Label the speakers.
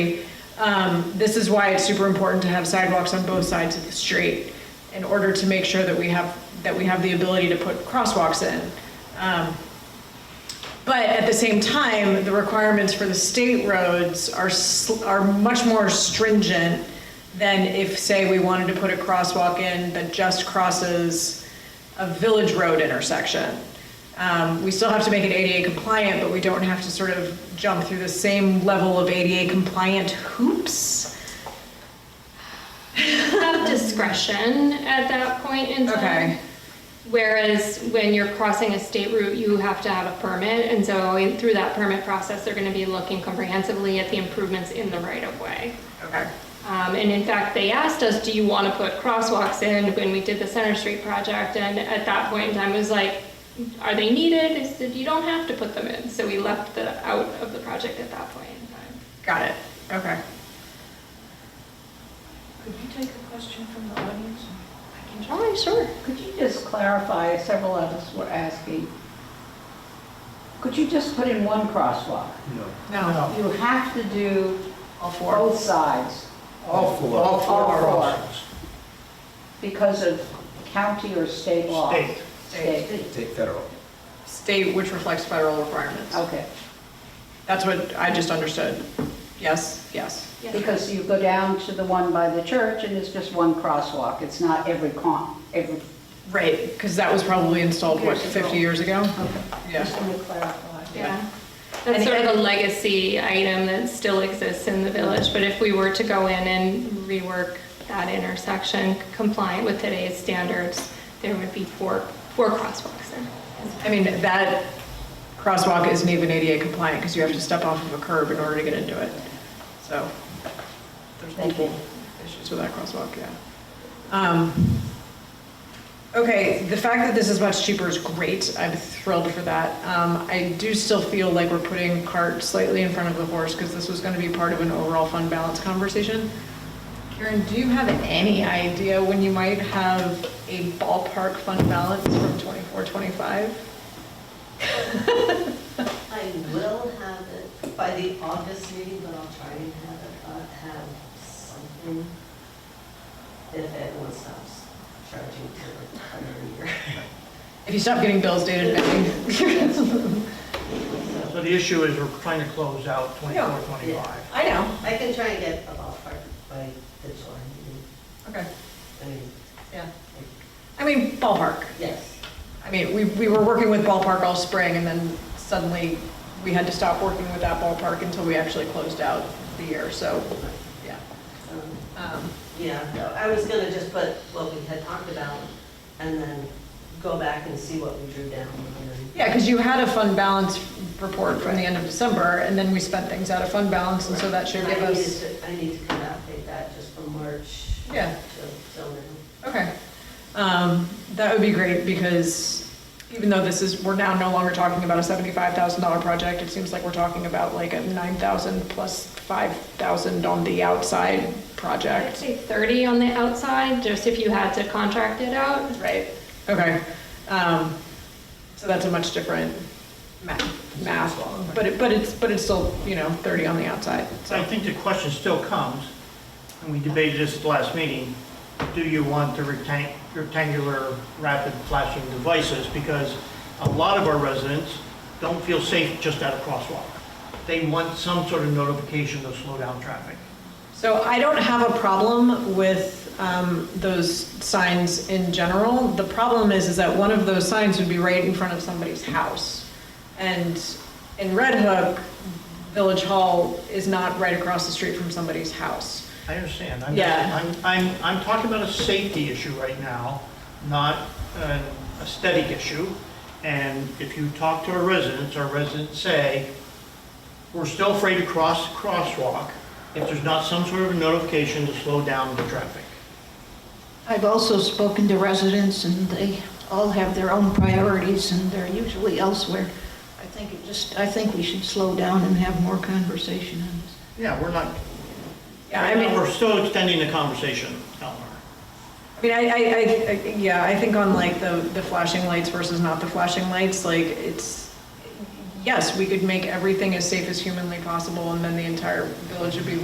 Speaker 1: Um, This is why it's super important to have sidewalks on both sides of the street in order to make sure that we have, that we have the ability to put crosswalks in. Um, But at the same time, the requirements for the state roads are, sl- are much more stringent than if, say, we wanted to put a crosswalk in that just crosses a village road intersection. Um, We still have to make it ADA compliant, but we don't have to sort of jump through the same level of ADA compliant hoops.
Speaker 2: have discretion at that point in time.
Speaker 1: Okay.
Speaker 2: Whereas when you're crossing a state route, you have to have a permit, and so in- through that permit process, they're gonna be looking comprehensively at the improvements in the right of way.
Speaker 1: Okay.
Speaker 2: Um, and in fact, they asked us, do you wanna put crosswalks in when we did the Center Street project? And at that point in time, it was like, are they needed? They said, you don't have to put them in, so we left the, out of the project at that point in time.
Speaker 1: Got it. Okay.
Speaker 3: Could you take a question from the audience? I can try.
Speaker 2: Oh, sure.
Speaker 4: Could you just clarify, several of us were asking, could you just put in one crosswalk?
Speaker 1: No.
Speaker 4: You have to do
Speaker 1: All four.
Speaker 4: both sides
Speaker 5: All four.
Speaker 4: All
Speaker 5: All
Speaker 4: four.
Speaker 5: options.
Speaker 4: because of county or state law.
Speaker 5: State.
Speaker 4: State.
Speaker 5: Take federal.
Speaker 1: State which reflects federal requirements.
Speaker 4: Okay,
Speaker 1: That's what I just understood. Yes, yes.
Speaker 2: Yeah.
Speaker 4: because you go down to the one by the church and it's just one crosswalk. It's not every con, every,
Speaker 1: Right, because that was probably installed, what,
Speaker 4: Years ago. Uh,
Speaker 1: 50 years ago?
Speaker 4: okay.
Speaker 1: Yeah.
Speaker 4: Just want to clarify.
Speaker 2: Yeah, that's sort of a legacy item that still exists in the village, but if we were to go in and rework that intersection compliant with today's standards, there would be four, four crosswalks there.
Speaker 1: I mean, that crosswalk isn't even ADA compliant because you have to step off of a curb in order to get into it. So there's
Speaker 4: Thank
Speaker 1: multiple issues with that crosswalk, yeah. Um, Okay, the fact that this is much cheaper is great. I'm thrilled for that. Um, I do still feel like we're putting cart slightly in front of the horse because this was going to be part of an overall fund balance conversation. Karen, do you have any idea when you might have a ballpark fund balance from 24, 25?
Speaker 6: I will have it by the August meeting, but I'll try and have it, uh, have something if anyone stops charging for a year.
Speaker 1: If you stop getting bills dated back.
Speaker 7: So the issue is we're trying to close out 24, 25.
Speaker 1: I know.
Speaker 6: I can try and get a ballpark by the July meeting.
Speaker 1: Okay,
Speaker 6: I mean,
Speaker 1: yeah. I mean, ballpark.
Speaker 6: yes,
Speaker 1: I mean, we, we were working with ballpark all spring and then suddenly we had to stop working with that ballpark until we actually closed out the year, so, yeah.
Speaker 6: um,
Speaker 1: Um,
Speaker 6: yeah, no, I was gonna just put what we had talked about and then go back and see what we drew down and then
Speaker 1: Yeah, because you had a fund balance report from the end of December and then we spent things out of fund balance and so that should give
Speaker 6: I needed
Speaker 1: us,
Speaker 6: to- I need to kind of update that just from March
Speaker 1: yeah.
Speaker 6: to till now.
Speaker 1: Okay. Um, That would be great because even though this is, we're now no longer talking about a $75,000 project, it seems like we're talking about like a 9,000 plus 5,000 on the outside
Speaker 2: I'd
Speaker 1: project,
Speaker 2: say 30 on the outside, just if you had to contract it out.
Speaker 1: right? Okay. Um, So that's a much different math, math, but it, but it's, but it's still, you know, 30 on the outside.
Speaker 7: So I think the question still comes, and we debated this at the last meeting, do you want the rectang- rectangular rapid flashing devices? Because a lot of our residents don't feel safe just at a crosswalk. They want some sort of notification to slow down traffic.
Speaker 1: So I don't have a problem with um, those signs in general. The problem is, is that one of those signs would be right in front of somebody's house. And in Red Hook, Village Hall is not right across the street from somebody's house.
Speaker 7: I understand. I'm-
Speaker 1: Yeah.
Speaker 7: I'm, I'm, I'm talking about a safety issue right now, not an aesthetic issue. And if you talk to our residents, our residents say, we're still afraid to cross the crosswalk if there's not some sort of notification to slow down the traffic.
Speaker 8: I've also spoken to residents, and they all have their own priorities, and they're usually elsewhere. I think it just, I think we should slow down and have more conversation on this.
Speaker 7: Yeah, we're not,
Speaker 1: Yeah, I
Speaker 7: right now,
Speaker 1: mean,
Speaker 7: we're still extending the conversation, Eleanor.
Speaker 1: I mean, I, I, I- I, yeah, I think on like the, the flashing lights versus not the flashing lights, like it's, yes, we could make everything as safe as humanly possible and then the entire village would be